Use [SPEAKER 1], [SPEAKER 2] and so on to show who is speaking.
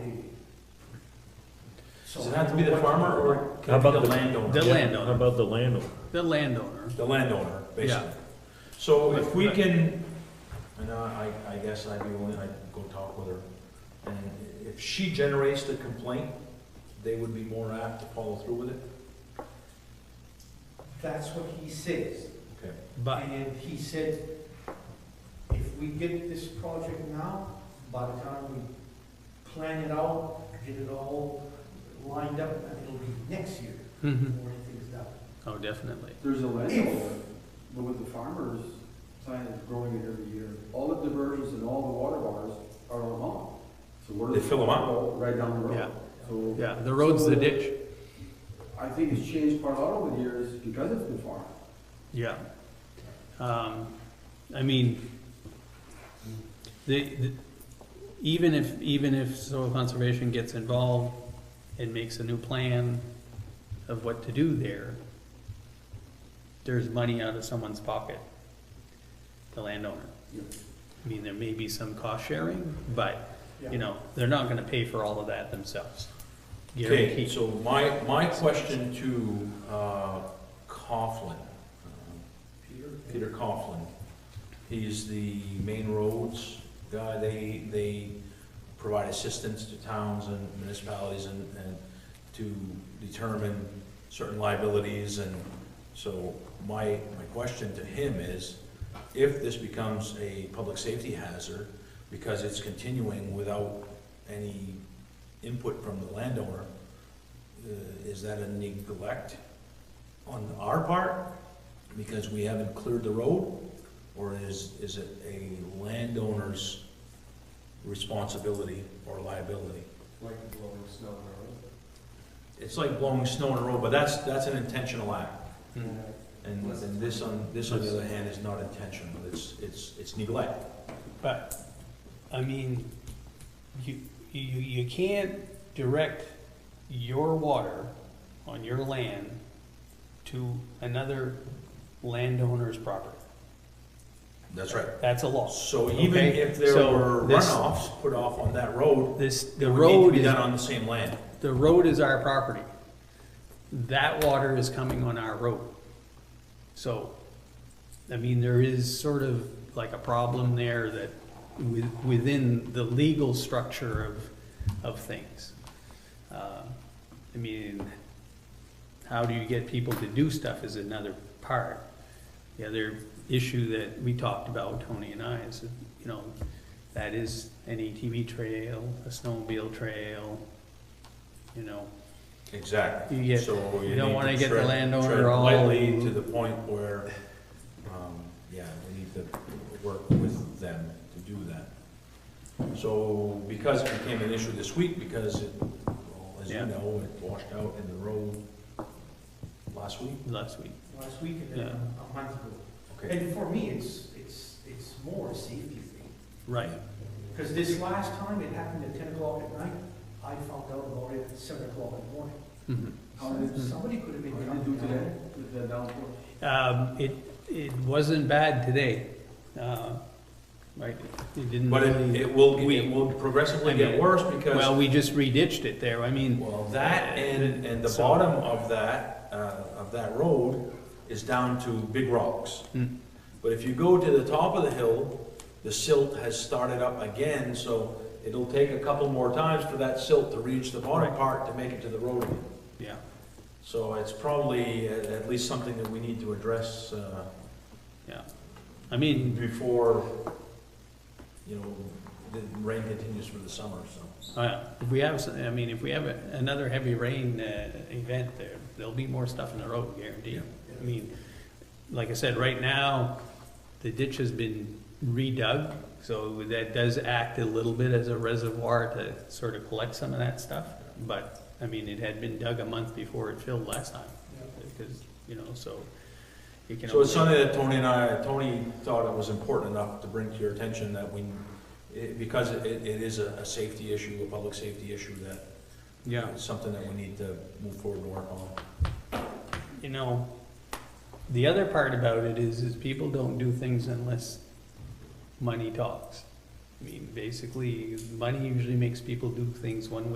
[SPEAKER 1] Does it have to be the farmer or
[SPEAKER 2] How
[SPEAKER 1] can it be
[SPEAKER 2] about
[SPEAKER 1] the
[SPEAKER 2] the-
[SPEAKER 1] landowner?
[SPEAKER 3] The
[SPEAKER 2] Yeah,
[SPEAKER 3] landowner.
[SPEAKER 2] How about the landowner?
[SPEAKER 3] the landowner.
[SPEAKER 1] The landowner, basically.
[SPEAKER 3] Yeah.
[SPEAKER 1] So if we can, and I, I guess I'd be willing, I'd go talk with her. And if she generates the complaint, they would be more apt to follow through with it?
[SPEAKER 4] That's what he says.
[SPEAKER 1] Okay.
[SPEAKER 3] But
[SPEAKER 4] And he said, if we get this project now, by the time we plan it out, get it all lined up, it'll be next year
[SPEAKER 1] Hmm.
[SPEAKER 3] Mhm.
[SPEAKER 4] before anything's done.
[SPEAKER 3] oh, definitely.
[SPEAKER 5] There's a landowner, but with the farmer's plan is growing it every year. All the diversions and all the water bars are on lawn. So we're.
[SPEAKER 1] They fill 'em up?
[SPEAKER 5] Right down the
[SPEAKER 3] Yeah.
[SPEAKER 5] road. So
[SPEAKER 3] Yeah, the road's the ditch.
[SPEAKER 5] I think it's changed quite a lot over the years because it's been farmed.
[SPEAKER 3] Yeah. Um, I mean, the, the, even if, even if soil conservation gets involved and makes a new plan of what to do there, there's money out of someone's pocket, the landowner.
[SPEAKER 5] Yeah.
[SPEAKER 3] I mean, there may be some cost sharing, but,
[SPEAKER 4] Yeah.
[SPEAKER 3] you know, they're not gonna pay for all of that themselves.
[SPEAKER 1] Okay,
[SPEAKER 3] Guaranteed.
[SPEAKER 1] so my, my question to uh, Coughlin, uh, Peter Coughlin, he's the main roads guy, they, they provide assistance to towns and municipalities and, and to determine certain liabilities, and so my, my question to him is, if this becomes a public safety hazard, because it's continuing without any input from the landowner, uh, is that a neglect on our part because we haven't cleared the road? Or is, is it a landowner's responsibility or liability?
[SPEAKER 5] Like blowing snow on
[SPEAKER 1] It's like blowing snow on a road, but that's, that's an intentional act.
[SPEAKER 3] Hmm.
[SPEAKER 1] And and this on, this on the other hand is not intentional, it's, it's, it's neglect.
[SPEAKER 3] But, I mean, you, you, you can't direct your water on your land to another landowner's property.
[SPEAKER 1] That's right.
[SPEAKER 3] That's a law.
[SPEAKER 1] So even
[SPEAKER 3] Okay,
[SPEAKER 1] if there
[SPEAKER 3] so
[SPEAKER 1] were
[SPEAKER 3] this-
[SPEAKER 1] runoffs put off on that road,
[SPEAKER 3] This, the
[SPEAKER 1] it would need to
[SPEAKER 3] road
[SPEAKER 1] be
[SPEAKER 3] is,
[SPEAKER 1] done on the same land.
[SPEAKER 3] the road is our property. That water is coming on our road. So, I mean, there is sort of like a problem there that with, within the legal structure of, of things. Uh, I mean, how do you get people to do stuff is another part. The other issue that we talked about, Tony and I, is, you know, that is an ATV trail, a snowmobile trail, you know,
[SPEAKER 1] Exactly.
[SPEAKER 3] You get-
[SPEAKER 1] So
[SPEAKER 3] you don't
[SPEAKER 1] need
[SPEAKER 3] wanna
[SPEAKER 1] to
[SPEAKER 3] get the
[SPEAKER 1] tread-
[SPEAKER 3] landowner
[SPEAKER 1] tread
[SPEAKER 3] all-
[SPEAKER 1] Lightly to the point where, um, yeah, we need to work with them to do that. So because it became an issue this week, because it, well, as you
[SPEAKER 3] Yeah.
[SPEAKER 1] know, it washed out in the road last week.
[SPEAKER 3] last week.
[SPEAKER 4] Last week and then a month ago.
[SPEAKER 1] Okay,
[SPEAKER 4] And for me, it's, it's, it's more a safety thing.
[SPEAKER 3] Right.
[SPEAKER 4] Because this last time it happened at ten o'clock at night, I found out about it at seven o'clock in the morning.
[SPEAKER 3] Mhm.
[SPEAKER 5] How did,
[SPEAKER 4] Somebody could have been.
[SPEAKER 5] how did it
[SPEAKER 4] coming
[SPEAKER 5] do
[SPEAKER 4] down.
[SPEAKER 5] today with the downpour?
[SPEAKER 3] Um, it, it wasn't bad today. Uh, Right, it didn't
[SPEAKER 1] but it,
[SPEAKER 3] really,
[SPEAKER 1] it will,
[SPEAKER 3] We-
[SPEAKER 1] it will progressively
[SPEAKER 3] I
[SPEAKER 1] get
[SPEAKER 3] mean,
[SPEAKER 1] worse because.
[SPEAKER 3] well, we just reditched it there. I mean,
[SPEAKER 1] Well, that and, and the
[SPEAKER 3] So-
[SPEAKER 1] bottom of that, uh, of that road is down to big rocks.
[SPEAKER 3] Hmm.
[SPEAKER 1] But if you go to the top of the hill, the silt has started up again, so it'll take a couple more times for that silt to reach the bottom
[SPEAKER 3] Right.
[SPEAKER 1] part to make it to the road again.
[SPEAKER 3] yeah,
[SPEAKER 1] So it's probably at, at least something that we need to address, uh,
[SPEAKER 3] yeah. I mean,
[SPEAKER 1] before, you know, the rain continues for the summer, so.
[SPEAKER 3] uh, if we have, some- I mean, if we have a- another heavy rain uh, event there, there'll be more stuff in the road, guaranteed. I mean, like I said, right now, the ditch has been redug, so that does act a little bit as a reservoir to sort of collect some of that stuff. But, I mean, it had been dug a month before it filled last time, because, you know, so you can.
[SPEAKER 1] So it's
[SPEAKER 3] only-
[SPEAKER 1] something that Tony and I, Tony thought it was important enough to bring to your attention that we, it- because it, it is a, a safety issue, a public safety issue that,
[SPEAKER 3] Yeah,
[SPEAKER 1] it's something that we need to move forward and work on.
[SPEAKER 3] you know, the other part about it is, is people don't do things unless money talks. I mean, basically, money usually makes people do things one way.